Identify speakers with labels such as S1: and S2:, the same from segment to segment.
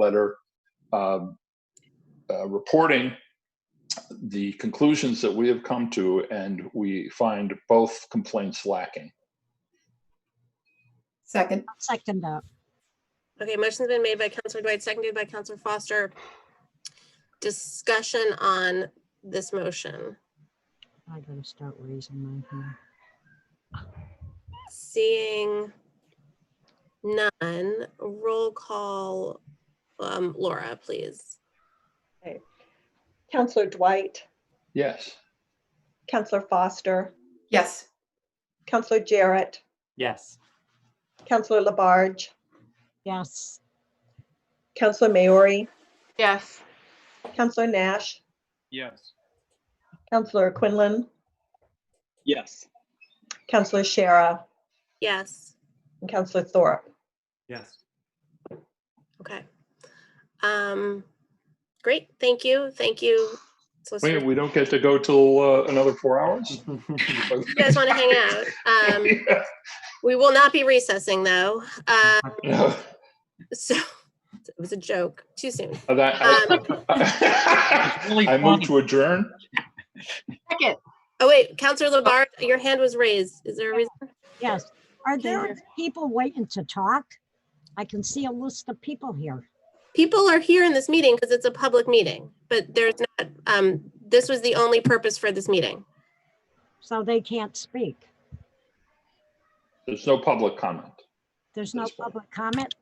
S1: letter um, uh, reporting the conclusions that we have come to, and we find both complaints lacking.
S2: Second,
S3: I'll second that.
S4: Okay, motion's been made by Counselor Dwight, seconded by Counselor Foster. Discussion on this motion.
S3: I gotta start raising my hand.
S4: Seeing none, roll call, um, Laura, please.
S5: Counselor Dwight,
S1: Yes.
S5: Counselor Foster,
S2: yes,
S5: Counselor Jarrett,
S6: Yes,
S5: Counselor Labarge,
S3: Yes,
S5: Counselor Maori,
S7: Yes,
S5: Counselor Nash,
S8: Yes.
S5: Counselor Quinlan,
S8: Yes.
S5: Counselor Shara,
S4: Yes,
S5: and Counselor Thorpe.
S6: yes.
S4: okay. Um, great, thank you, thank you.
S1: Wait,
S4: Solicitor.
S1: we don't get to go till uh, another four hours?
S4: You guys want to hang out? Um, we will not be recessing though. Uh,
S1: No,
S4: so it was a joke, too soon.
S1: that- Um,
S4: Um,
S1: I I move to adjourn?
S7: second.
S4: Oh, wait, Counselor Labarge, your hand was raised. Is there a reason?
S3: yes. Are there
S4: Here.
S3: people waiting to talk? I can see a list of people here.
S4: People are here in this meeting because it's a public meeting, but there's not, um, this was the only purpose for this meeting.
S3: So they can't speak.
S1: There's no public comment.
S3: There's no
S1: That's fine.
S3: public comment.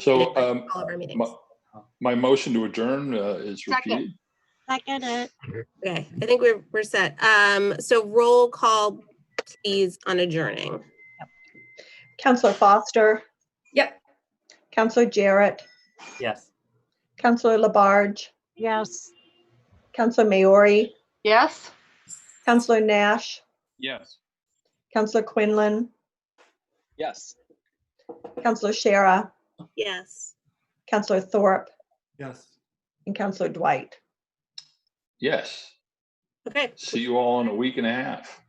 S1: So um,
S4: All of our meetings.
S1: my, my motion to adjourn uh, is
S7: Second.
S1: repeated.
S3: Second it.
S4: Okay, I think we're, we're set. Um, so roll call, please, on adjourning.
S5: Counselor Foster,
S2: yep,
S5: Counselor Jarrett,
S6: Yes.
S5: Counselor Labarge,
S3: Yes,
S5: Counselor Maori,
S7: Yes,
S5: Counselor Nash,
S8: Yes.
S5: Counselor Quinlan,
S8: Yes.
S5: Counselor Shara,
S4: Yes.
S5: Counselor Thorpe,
S6: Yes.
S5: and Counselor Dwight.
S1: Yes.
S4: Okay,
S1: See you all in a week and a half.